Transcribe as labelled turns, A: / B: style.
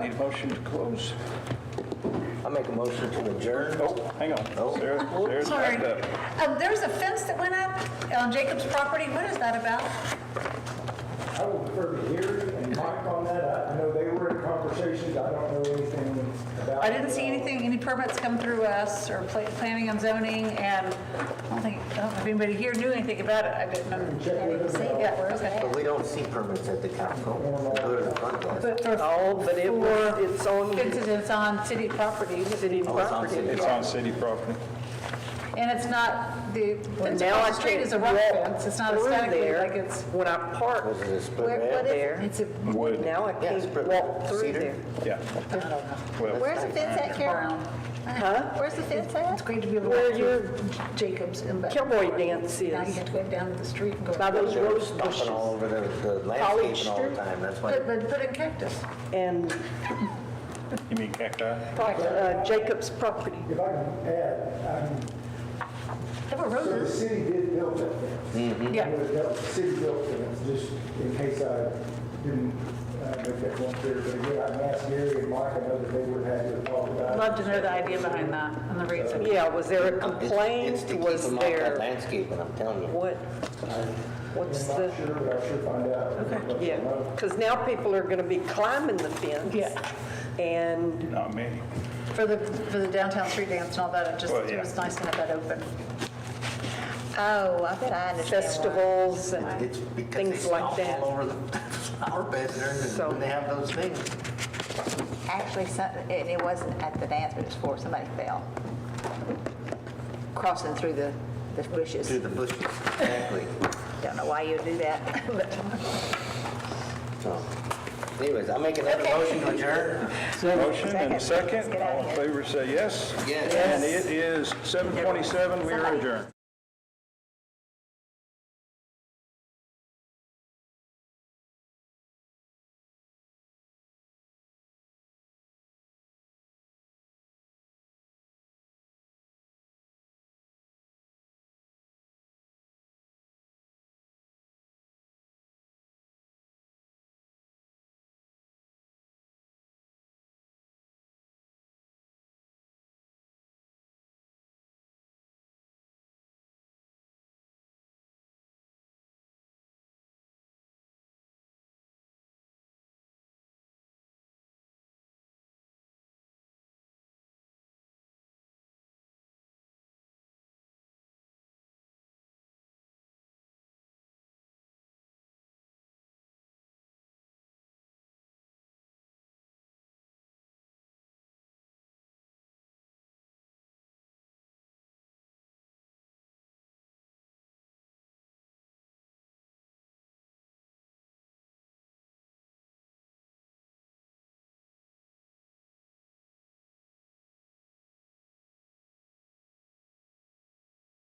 A: Need a motion to close?
B: I make a motion to adjourn.
A: Oh, hang on.
B: Oh.
A: Sarah- Sarah's
C: Sorry.
A: backed up.
C: Um, There's a fence that went up on Jacob's property. What is that about?
D: I will refer to Gary and Mike on that. I I know they were in conversations. I don't know anything about.
C: I didn't see anything, any permits come through us or pla- planning and zoning, and I don't think, I don't know if anybody here knew anything about it. I didn't know.
D: Check with them.
C: Yeah, okay.
B: But we don't see permits at the council. We Go to the front desk.
C: But for
E: Oh, but it was, it's on
C: fences, it's on city property,
E: city
B: Oh, it's on
E: property.
B: city.
A: It's on city property.
C: and it's not, the fence
E: Now
C: across
E: I
C: the street
E: can't
C: is a rock
E: walk
C: fence. It's not
E: through
C: aesthetically
E: there.
C: like it's,
E: When I park
B: Was it a split
E: where-
B: rail?
E: what is it? It's a,
A: Wood.
E: now I
B: Yeah, it's
E: can't
B: split
E: walk through
B: cedar.
E: there.
A: Yeah. Well,
F: Where's the fence at, Carol? Where's the fence
C: it's
F: at?
C: great to be able to
E: Where
C: walk through Jacob's and back.
E: Cowboy dance
C: Now you
E: is,
C: have to go down to the street and go.
E: by those
B: They're
E: rose bushes.
B: stomping all over the the landscaping all the
E: Street.
B: time. That's why.
C: But, but put in cactus.
E: And
A: You mean cacti?
E: uh, Jacob's property.
D: If I can add, um,
C: There were
D: so the
C: roses.
D: city did build that fence.
C: Yeah.
D: That was city built fence, just in case I didn't uh, make that one clear. But again, I asked Gary and Mike, I know that they would have had to talk about. it.
C: Love to know the idea behind that and the reason.
E: Yeah, was there a
B: It's- It's
E: complaint?
B: to keep
E: Was
B: them off that
E: there,
B: landscaping, I'm telling you.
E: what? What's
D: I'm
E: the,
D: not sure, but I'll sure find out. uh, Okay.
E: yeah, because now people are going to be climbing the fence.
C: Yeah.
E: And
A: Not me.
C: For the, for the downtown street dance and all that, it just,
A: Well, yeah.
C: it was nice to have that open.
F: Oh, I bet I understand why.
E: festivals and,
B: It's because they
E: Things like
B: stomp
E: that.
B: all over the flower beds there
E: So-
B: and when they have those things.
F: Actually, some- and it wasn't at the dance, but it was for, somebody fell. Crossing through the, the bushes.
B: Through the bushes, exactly.
F: Don't know why you'd do that, but.
B: So anyways, I'll make another motion to adjourn.
A: Motion and a
F: Second. Let's
A: second.
F: get out of
A: All in
F: here.
A: favor, say yes.
B: Yes.
A: And it is 7:27. We are adjourned.